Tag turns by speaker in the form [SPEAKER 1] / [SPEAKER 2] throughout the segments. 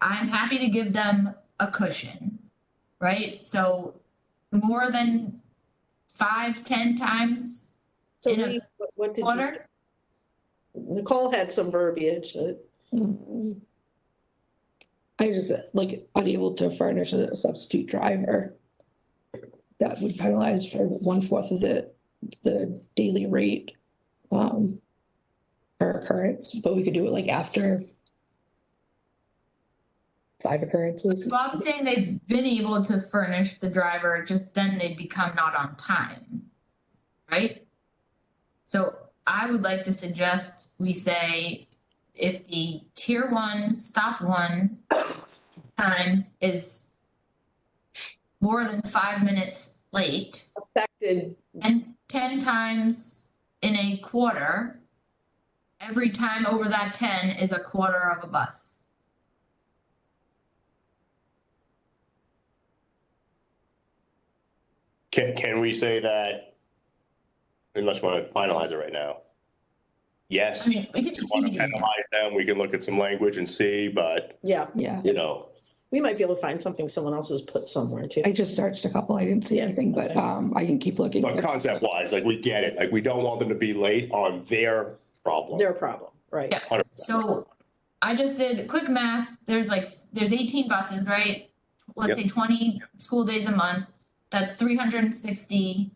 [SPEAKER 1] I'm happy to give them a cushion, right? So more than five, ten times
[SPEAKER 2] So
[SPEAKER 1] In a
[SPEAKER 2] Lee, what- what did you,
[SPEAKER 1] quarter?
[SPEAKER 2] Nicole had some verbiage that,
[SPEAKER 3] I just, like, unable to furnish a substitute driver. That would penalize for one fourth of the, the daily rate. Um, per occurrence, but we could do it like after. Five occurrences.
[SPEAKER 1] Bob's saying they've been able to furnish the driver, just then they become not on time, right? So I would like to suggest we say if the tier one, stop one time is more than five minutes late,
[SPEAKER 2] affected
[SPEAKER 1] and ten times in a quarter, every time over that ten is a quarter of a bus.
[SPEAKER 4] Can, can we say that, unless you want to finalize it right now? Yes,
[SPEAKER 1] I
[SPEAKER 4] if
[SPEAKER 1] mean, we could
[SPEAKER 4] you want to
[SPEAKER 1] continue. to-
[SPEAKER 4] penalize them, we can look at some language and see, but,
[SPEAKER 2] yeah,
[SPEAKER 3] Yeah,
[SPEAKER 4] you know,
[SPEAKER 2] we might be able to find something someone else has put somewhere too.
[SPEAKER 3] I just searched a couple, I didn't see
[SPEAKER 2] Yeah,
[SPEAKER 3] anything, but,
[SPEAKER 2] okay.
[SPEAKER 3] um, I can keep looking.
[SPEAKER 4] but concept wise, like, we get it, like, we don't want them to be late on their problem.
[SPEAKER 2] Their problem, right?
[SPEAKER 1] Yeah. So I just did quick math. There's like, there's eighteen buses, right? Let's say twenty school days a month. That's three hundred and sixty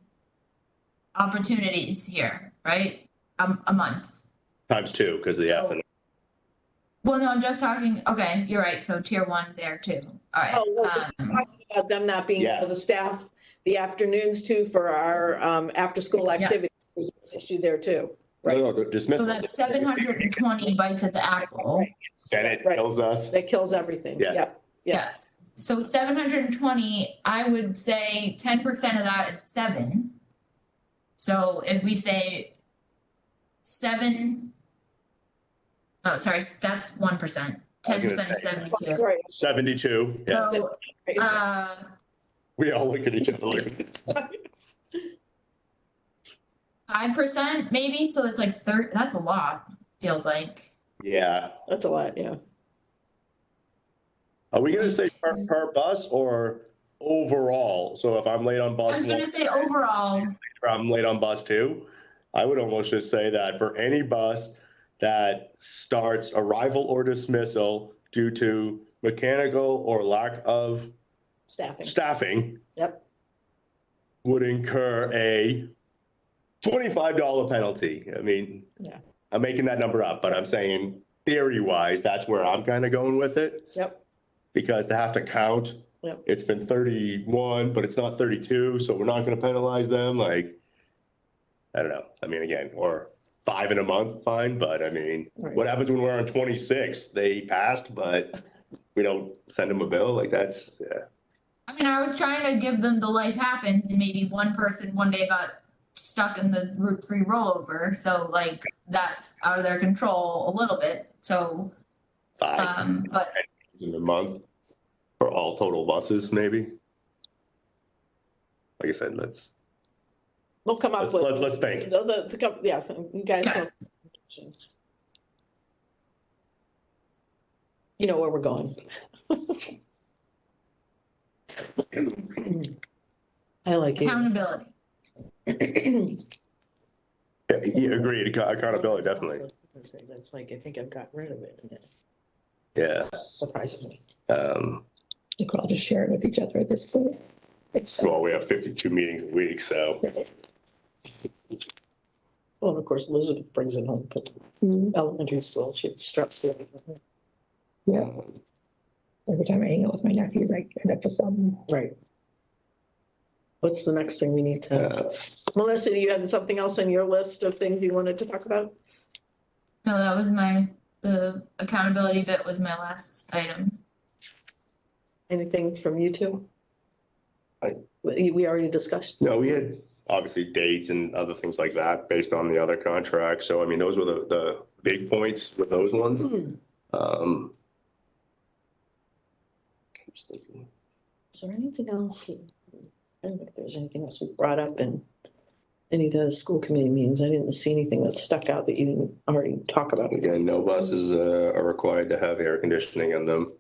[SPEAKER 1] opportunities here, right? Um, a month.
[SPEAKER 4] Times two, because of the F and
[SPEAKER 1] Well, no, I'm just talking, okay, you're right. So tier one there too. All right.
[SPEAKER 2] Oh, well,
[SPEAKER 1] um,
[SPEAKER 2] Talking About them not being,
[SPEAKER 4] Yeah.
[SPEAKER 2] for the staff, the afternoons too, for our um, after-school activities, there's an issue there too.
[SPEAKER 4] No, no, dismissal.
[SPEAKER 1] So that's seven hundred and twenty bites at the apple.
[SPEAKER 4] Then it
[SPEAKER 2] Right.
[SPEAKER 4] kills us.
[SPEAKER 2] That kills everything,
[SPEAKER 4] Yeah.
[SPEAKER 2] yeah.
[SPEAKER 1] Yeah, so seven hundred and twenty, I would say ten percent of that is seven. So if we say seven, oh, sorry, that's one percent,
[SPEAKER 4] I
[SPEAKER 1] ten
[SPEAKER 4] was gonna
[SPEAKER 1] percent is
[SPEAKER 4] say.
[SPEAKER 1] seventy-two.
[SPEAKER 2] Right,
[SPEAKER 4] Seventy-two, yeah,
[SPEAKER 1] So,
[SPEAKER 2] right.
[SPEAKER 1] uh,
[SPEAKER 4] we all look at each other like,
[SPEAKER 1] five percent maybe, so it's like thir- that's a lot, feels like.
[SPEAKER 4] yeah.
[SPEAKER 2] That's a lot, yeah.
[SPEAKER 4] Are we gonna say per, per bus or overall? So if I'm late on bus.
[SPEAKER 1] I was
[SPEAKER 4] one-
[SPEAKER 1] gonna say overall,
[SPEAKER 4] or I'm late on bus two, I would almost just say that for any bus that starts arrival or dismissal due to mechanical or lack of
[SPEAKER 2] Staffing,
[SPEAKER 4] staffing
[SPEAKER 2] yep.
[SPEAKER 4] would incur a twenty-five dollar penalty. I mean,
[SPEAKER 2] Yeah.
[SPEAKER 4] I'm making that number up, but I'm saying theory-wise, that's where I'm kind of going with it
[SPEAKER 2] Yep,
[SPEAKER 4] because they have to count.
[SPEAKER 2] Yep.
[SPEAKER 4] It's been thirty-one, but it's not thirty-two, so we're not gonna penalize them, like, I don't know, I mean, again, or five in a month, fine, but I mean,
[SPEAKER 2] Right.
[SPEAKER 4] what happens when we're on twenty-six? They passed, but we don't send them a bill, like, that's, yeah.
[SPEAKER 1] I mean, I was trying to give them the life happens and maybe one person one day got stuck in the Route Three rollover, so like that's out of their control a little bit. So,
[SPEAKER 4] five
[SPEAKER 1] um, but
[SPEAKER 4] in a month for all total buses, maybe. Like I said, let's,
[SPEAKER 2] we'll come up
[SPEAKER 4] let's,
[SPEAKER 2] with.
[SPEAKER 4] let's let's think.
[SPEAKER 2] The, the- the, com- yeah, you guys.
[SPEAKER 1] Yeah.
[SPEAKER 2] know. You know where we're going. I like
[SPEAKER 1] accountability.
[SPEAKER 2] it.
[SPEAKER 4] Yeah, yeah, agreed, Acc- accountability, definitely,
[SPEAKER 2] That's like, I think I've got rid of it.
[SPEAKER 4] yeah.
[SPEAKER 2] Surprises me.
[SPEAKER 4] Um,
[SPEAKER 3] We could all just share it with each other at this point.
[SPEAKER 4] well, we have fifty-two meetings a week, so.
[SPEAKER 2] Well, and of course Elizabeth brings it home, but
[SPEAKER 3] Mhm,
[SPEAKER 2] elementary school, she'd struck.
[SPEAKER 3] Yeah. Every time I hang out with my nephews, I end up with some.
[SPEAKER 2] Right. What's the next thing we need to,
[SPEAKER 4] Uh,
[SPEAKER 2] Melissa, you had something else on your list of things you wanted to talk about?
[SPEAKER 1] No, that was my, the accountability bit was my last item.
[SPEAKER 2] Anything from you two?
[SPEAKER 4] I-
[SPEAKER 2] We we already discussed.
[SPEAKER 4] No, we had obviously dates and other things like that based on the other contracts. So I mean, those were the, the big points with those ones.
[SPEAKER 2] Is
[SPEAKER 4] Um. just thinking.
[SPEAKER 2] there anything else? I don't think there's anything else we brought up in any of the school committee meetings. I didn't see anything that stuck out that you didn't already talk about.
[SPEAKER 4] Again, no buses uh, are required to have air conditioning in them.